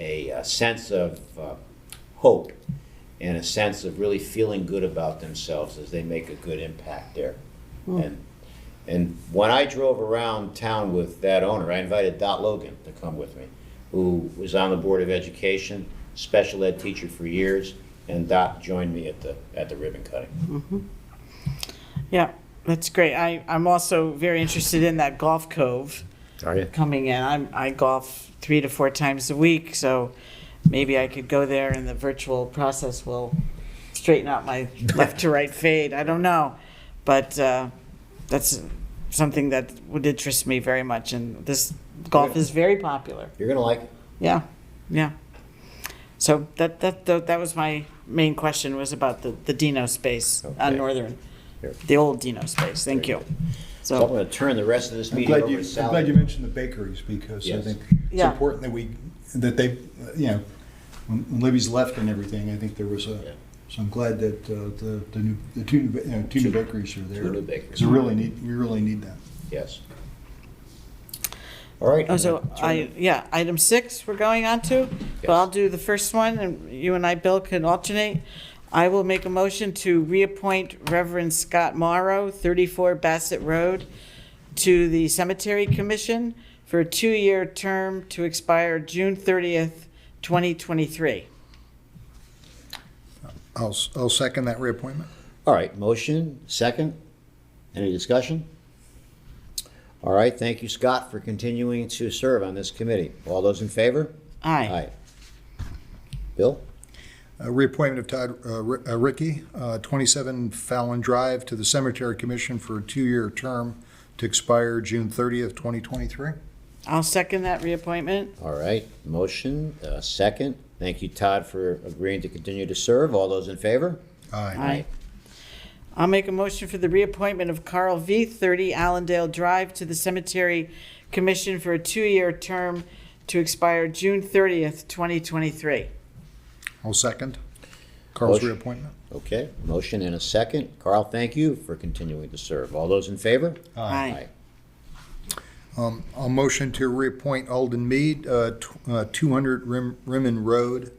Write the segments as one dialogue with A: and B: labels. A: a sense of uh, hope and a sense of really feeling good about themselves as they make a good impact there.
B: Hmm.
A: And, and when I drove around town with that owner, I invited Dot Logan to come with me, who was on the Board of Education, special ed teacher for years, and Dot joined me at the, at the ribbon cutting.
C: Yeah, that's great. I, I'm also very interested in that golf cove
A: Are you?
C: coming in. I'm, I golf three to four times a week, so maybe I could go there and the virtual process will straighten out my left to right fade. I don't know. But uh, that's something that would interest me very much. And this golf is very popular.
A: You're gonna like it.
C: Yeah, yeah. So that, that, tho- that was my main question was about the, the Dino space
A: Okay.
C: on Northern,
A: Here.
C: the old Dino space, thank you.
A: So I'm
C: So,
A: gonna turn the rest of this
B: I'm
A: meeting
B: glad
A: over
B: you,
A: to
B: I'm glad you
A: Sally.
B: mentioned the bakeries, because I
A: Yes.
B: think it's
C: Yeah.
B: important that we, that they, you know, when when Libby's left and everything, I think there was
A: Yeah.
B: a, so I'm glad that uh, the, the new, the two, new ba- you know, two new bakeries are there.
A: Two new bakeries.
B: 'Cause we really need, we really need that.
A: Yes. All right.
C: oh, so
A: I'm gonna turn
C: I, yeah, item six we're going on to, but I'll do the first one and you and I, Bill, can alternate. I will make a motion to reappoint Reverend Scott Morrow, 34 Bassett Road, to the Cemetery Commission for a two-year term to expire June 30th, 2023.
D: I'll, s- I'll second that reappointment.
A: All right, motion, second. Any discussion? All right, thank you, Scott, for continuing to serve on this committee. All those in favor?
C: Aye.
A: Bill?
D: Uh, Reappointment of Todd uh, Ri- uh, Ricky, uh, 27 Fallon Drive, to the Cemetery Commission for a two-year term to expire June 30th, 2023.
C: I'll second that reappointment.
A: All right, motion, uh, second. Thank you, Todd, for agreeing to continue to serve. All those in favor?
D: Aye.
C: Aye. I'll make a motion for the reappointment of Carl V., 30 Allendale Drive, to the Cemetery Commission for a two-year term to expire June 30th, 2023.
D: I'll second Carl's
A: Motion.
D: reappointment.
A: Okay, motion and a second. Carl, thank you for continuing to serve. All those in favor?
C: Aye.
D: Um, I'll motion to reappoint Alden Mead, uh, tw- uh, 200 Rim- Rimmen Road,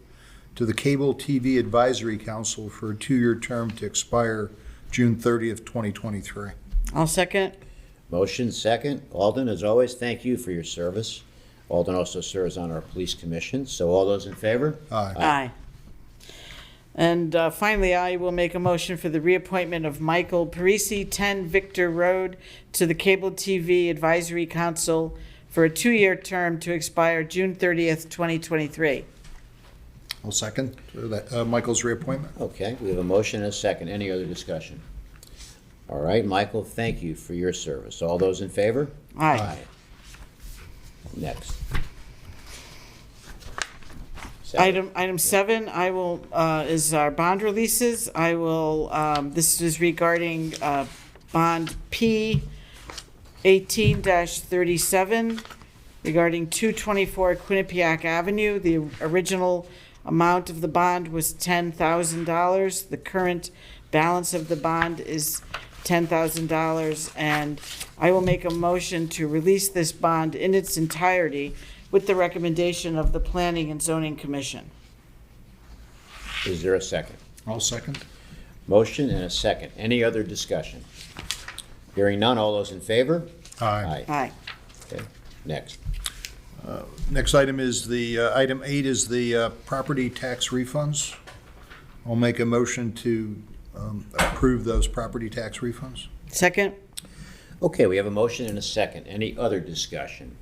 D: to the Cable TV Advisory Council for a two-year term to expire June 30th, 2023.
C: I'll second.
A: Motion, second. Alden, as always, thank you for your service. Alden also serves on our police commission, so all those in favor?
D: Aye.
C: Aye. And uh, finally, I will make a motion for the reappointment of Michael Parisi, 10 Victor Road, to the Cable TV Advisory Council for a two-year term to expire June 30th, 2023.
D: I'll second uh, that, uh, Michael's reappointment.
A: Okay, we have a motion and a second. Any other discussion? All right, Michael, thank you for your service. All those in favor?
C: Aye.
A: Next. Second.
C: Item, item seven, I will, uh, is our bond releases. I will, um, this is regarding, uh, bond P eighteen thirty-seven regarding two twenty-four Quinnipiac Avenue. The original amount of the bond was ten thousand dollars. The current balance of the bond is ten thousand dollars. And I will make a motion to release this bond in its entirety with the recommendation of the Planning and Zoning Commission.
A: Is there a second?
D: I'll second.
A: Motion and a second. Any other discussion? Hearing none, all those in favor?
D: Aye.
A: Aye.
C: Aye.
A: Okay, next.
D: Next item is the, uh, item eight is the uh, property tax refunds. I'll make a motion to um, approve those property tax refunds.
C: Second?
A: Okay, we have a motion and a second. Any other discussion?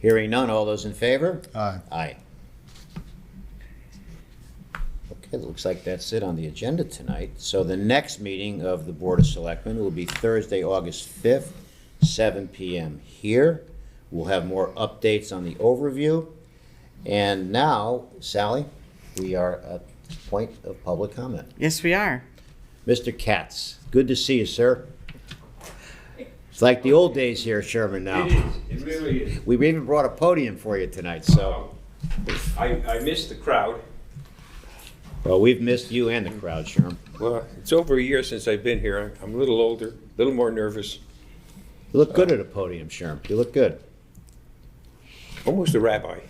A: Hearing none, all those in favor?
D: Aye.
A: Aye. Okay, it looks like that's it on the agenda tonight. So the next meeting of the Board of Selectmen will be Thursday, August 5th, 7 PM here. We'll have more updates on the overview. And now, Sally, we are at the point of public comment.
C: Yes, we are.
A: Mr. Katz, good to see you, sir. It's like the old days here, Sherman, now.
E: It is, it really is. Um,
A: We even brought a podium for you tonight, so,
E: I, I missed the crowd.
A: well, we've missed you and the crowd, Sherman.
E: Well, it's over a year since I've been here. I'm a little older, a little more nervous,
A: You look good at a podium, Sherm. You look good.
E: almost a rabbi.